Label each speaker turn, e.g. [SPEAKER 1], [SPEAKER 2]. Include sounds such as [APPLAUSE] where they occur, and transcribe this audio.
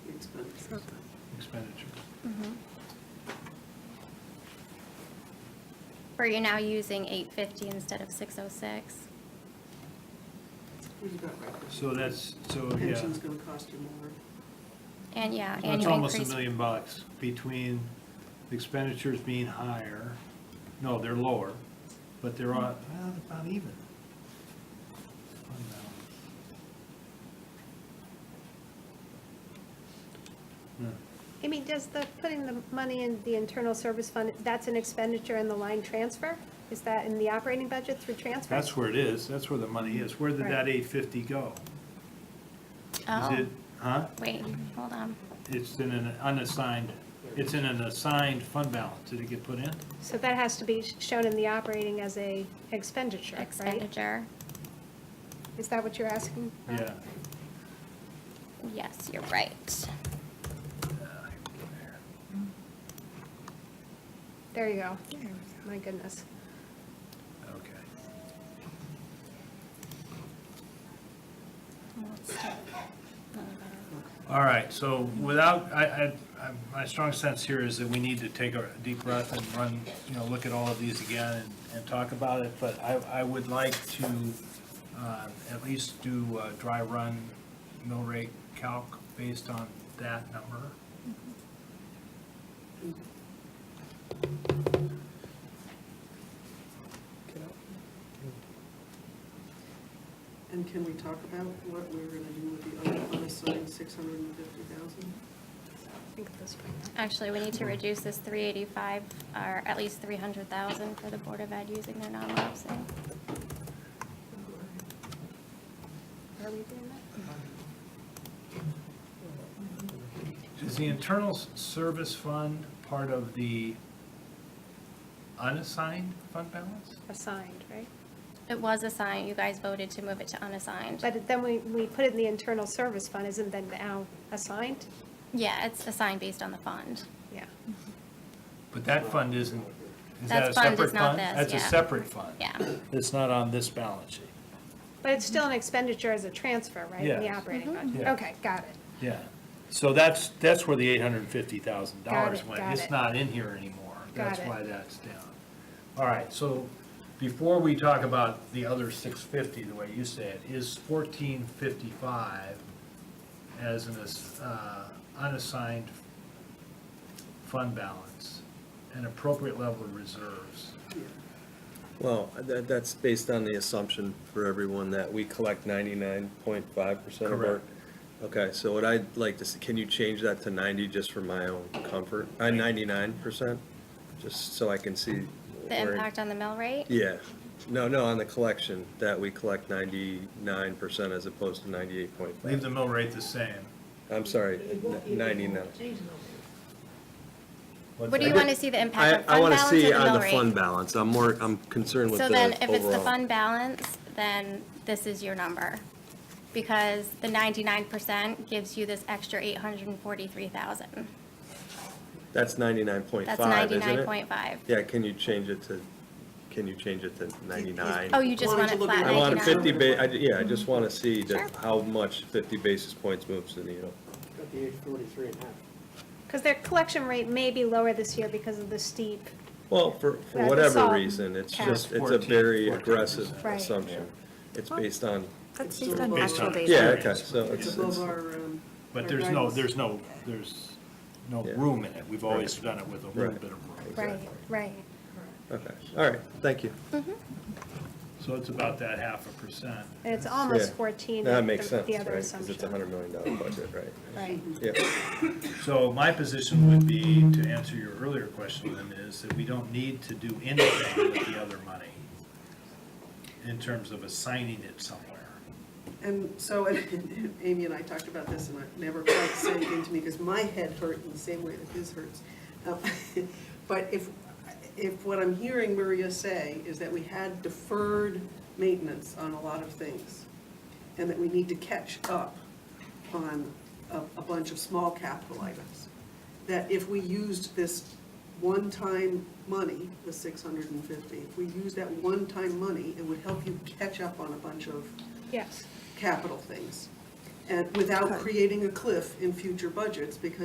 [SPEAKER 1] expenditures.
[SPEAKER 2] Mm-hmm. Or you're now using eight fifty instead of six oh six?
[SPEAKER 3] You've got right.
[SPEAKER 1] So that's, so, yeah.
[SPEAKER 3] Pension's gonna cost you more.
[SPEAKER 2] And, yeah,
[SPEAKER 1] So It's
[SPEAKER 2] annual
[SPEAKER 1] almost a
[SPEAKER 2] increase.
[SPEAKER 1] million bucks between the expenditures being higher, no, they're lower, but they're on, well, they're about even. Fund balance.
[SPEAKER 4] Amy, does the, putting the money in the internal service fund, that's an expenditure in the line transfer? Is that in the operating budget through
[SPEAKER 1] No,
[SPEAKER 4] transfer?
[SPEAKER 1] That's where it is, that's where the money is. Where did that
[SPEAKER 4] Right.
[SPEAKER 1] eight fifty go? Is
[SPEAKER 2] Oh,
[SPEAKER 1] it, huh?
[SPEAKER 2] wait, hold on.
[SPEAKER 1] It's in an unassigned, it's in an assigned fund balance. Did it get put in?
[SPEAKER 4] So that has to be shown in the operating as a expenditure, right?
[SPEAKER 2] Expenditure,
[SPEAKER 4] Is that what you're asking? for?
[SPEAKER 1] Yeah.
[SPEAKER 2] yes, you're right.
[SPEAKER 4] There you go. My goodness.
[SPEAKER 1] Okay.
[SPEAKER 2] Let's take-
[SPEAKER 1] All right, so without, I, I, I- my strong sense here is that we need to take a deep breath and run, you know, look at all of these again and, and talk about it, but I, I would like to, uh, at least do a dry run mill rate calc based on that number.
[SPEAKER 3] And can we talk about what we're gonna do with the other unassigned six hundred and fifty thousand?
[SPEAKER 4] Think of this way.
[SPEAKER 2] Actually, we need to reduce this three eighty-five, or at least three hundred thousand for the Board of Ed using their non-lapsing.
[SPEAKER 4] Are we doing that?
[SPEAKER 1] Uh-huh. Is the internal s- service fund part of the unassigned fund balance?
[SPEAKER 4] Assigned, right?
[SPEAKER 2] It was assigned, you guys voted to move it to unassigned.
[SPEAKER 4] But then we, we put it in the internal service fund, isn't that now assigned?
[SPEAKER 2] Yeah, it's assigned based on the fund.
[SPEAKER 4] Yeah.
[SPEAKER 1] But that fund isn't, is
[SPEAKER 2] That
[SPEAKER 1] that a
[SPEAKER 2] fund is
[SPEAKER 1] separate fund?
[SPEAKER 2] not this,
[SPEAKER 1] That's a
[SPEAKER 2] yeah.
[SPEAKER 1] separate fund.
[SPEAKER 2] Yeah,
[SPEAKER 1] It's not on this balance sheet.
[SPEAKER 4] But it's still an expenditure as a transfer, right? In the
[SPEAKER 1] Yes.
[SPEAKER 4] operating budget?
[SPEAKER 1] Yeah.
[SPEAKER 4] Okay, got it.
[SPEAKER 1] Yeah, so that's, that's where the eight hundred and fifty thousand
[SPEAKER 4] Got
[SPEAKER 1] dollars
[SPEAKER 4] it,
[SPEAKER 1] went.
[SPEAKER 4] got
[SPEAKER 1] It's
[SPEAKER 4] it.
[SPEAKER 1] not in here anymore.
[SPEAKER 4] Got
[SPEAKER 1] That's
[SPEAKER 4] it.
[SPEAKER 1] why that's down. All right, so before we talk about the other six fifty, the way you say it, is fourteen fifty-five as an ass- uh, unassigned fund balance, an appropriate level of reserves.
[SPEAKER 5] Well, that, that's based on the assumption for everyone that we collect ninety-nine point five percent of our.
[SPEAKER 1] Correct.
[SPEAKER 5] Okay, so what I'd like to see, can you change that to ninety just for my own comfort? Uh, ninety-nine percent, just so I can see.
[SPEAKER 2] the
[SPEAKER 5] where-
[SPEAKER 2] impact on the mill rate?
[SPEAKER 5] Yeah, no, no, on the collection, that we collect ninety-nine percent as opposed to ninety-eight point
[SPEAKER 1] Leave
[SPEAKER 5] five.
[SPEAKER 1] the mill rate the same.
[SPEAKER 5] I'm sorry, ninety-nine.
[SPEAKER 2] What do you want to see the
[SPEAKER 5] I,
[SPEAKER 2] impact
[SPEAKER 5] I
[SPEAKER 2] on fund
[SPEAKER 5] wanna
[SPEAKER 2] balance or the
[SPEAKER 5] see on
[SPEAKER 2] mill
[SPEAKER 5] the fund
[SPEAKER 2] rate?
[SPEAKER 5] balance, I'm more, I'm concerned with the
[SPEAKER 2] So
[SPEAKER 5] overall.
[SPEAKER 2] then, if it's the fund balance, then this is your number. Because the ninety-nine percent gives you this extra eight hundred and forty-three thousand.
[SPEAKER 5] That's ninety-nine point
[SPEAKER 2] That's
[SPEAKER 5] five, isn't it?
[SPEAKER 2] ninety-nine point five.
[SPEAKER 5] Yeah, can you change it to, can you change it to 99?
[SPEAKER 2] Oh, you just
[SPEAKER 3] Why don't
[SPEAKER 2] want
[SPEAKER 3] you
[SPEAKER 2] it
[SPEAKER 3] look
[SPEAKER 2] flat
[SPEAKER 3] at-
[SPEAKER 5] I want a
[SPEAKER 2] 99.
[SPEAKER 5] 50 ba, I, yeah, I just want to see
[SPEAKER 2] Sure.
[SPEAKER 5] that, how much 50 basis points moves the needle.
[SPEAKER 6] Got the age forty-three and a half.
[SPEAKER 4] Because their collection rate may be lower this year because of the steep
[SPEAKER 5] Well, for,
[SPEAKER 4] Right,
[SPEAKER 5] for
[SPEAKER 4] the
[SPEAKER 5] whatever
[SPEAKER 4] salt
[SPEAKER 5] reason, it's
[SPEAKER 4] cap.
[SPEAKER 5] just, it's a
[SPEAKER 1] 14,
[SPEAKER 5] very
[SPEAKER 1] 14%.
[SPEAKER 5] aggressive
[SPEAKER 4] Right.
[SPEAKER 5] assumption. It's
[SPEAKER 4] Well-
[SPEAKER 5] based on,
[SPEAKER 7] That's
[SPEAKER 3] It's
[SPEAKER 7] based on
[SPEAKER 3] based
[SPEAKER 7] actual
[SPEAKER 3] on-
[SPEAKER 7] data.
[SPEAKER 5] yeah, okay, so
[SPEAKER 3] It's
[SPEAKER 5] it's, it's,
[SPEAKER 3] above our, um.
[SPEAKER 1] But
[SPEAKER 3] our
[SPEAKER 1] there's no,
[SPEAKER 3] guidance.
[SPEAKER 1] there's no, there's no
[SPEAKER 5] Yeah.
[SPEAKER 1] room in it. We've always
[SPEAKER 5] Right.
[SPEAKER 1] done it with a little
[SPEAKER 5] Right.
[SPEAKER 1] bit of room.
[SPEAKER 4] Right, right.
[SPEAKER 5] okay, all right, thank you.
[SPEAKER 1] So it's about that half a percent.
[SPEAKER 4] And it's almost
[SPEAKER 5] Yeah.
[SPEAKER 4] 14.
[SPEAKER 5] That
[SPEAKER 4] with
[SPEAKER 5] makes
[SPEAKER 4] the-
[SPEAKER 5] sense,
[SPEAKER 4] The
[SPEAKER 5] right?
[SPEAKER 4] other
[SPEAKER 5] Because it's a
[SPEAKER 4] assumption.
[SPEAKER 5] $100 million budget, right?
[SPEAKER 4] Right.
[SPEAKER 5] Yeah.
[SPEAKER 1] So my position would be, to answer your earlier question, Lynn, is that we don't need to do anything with the other money in terms of assigning it somewhere.
[SPEAKER 3] And so, and- and [LAUGHS] Amy and I talked about this, and it never quite sank into me, because my head hurt in the same way that his hurts. Um, [LAUGHS] But if, if what I'm hearing Maria say is that we had deferred maintenance on a lot of things, and that we need to catch up on a, a bunch of small capital items, that if we used this one-time money, the six hundred and fifty, if we used that one-time money, it would help you catch up on a bunch of
[SPEAKER 4] Yes.
[SPEAKER 3] capital things, and without creating a cliff in future budgets, because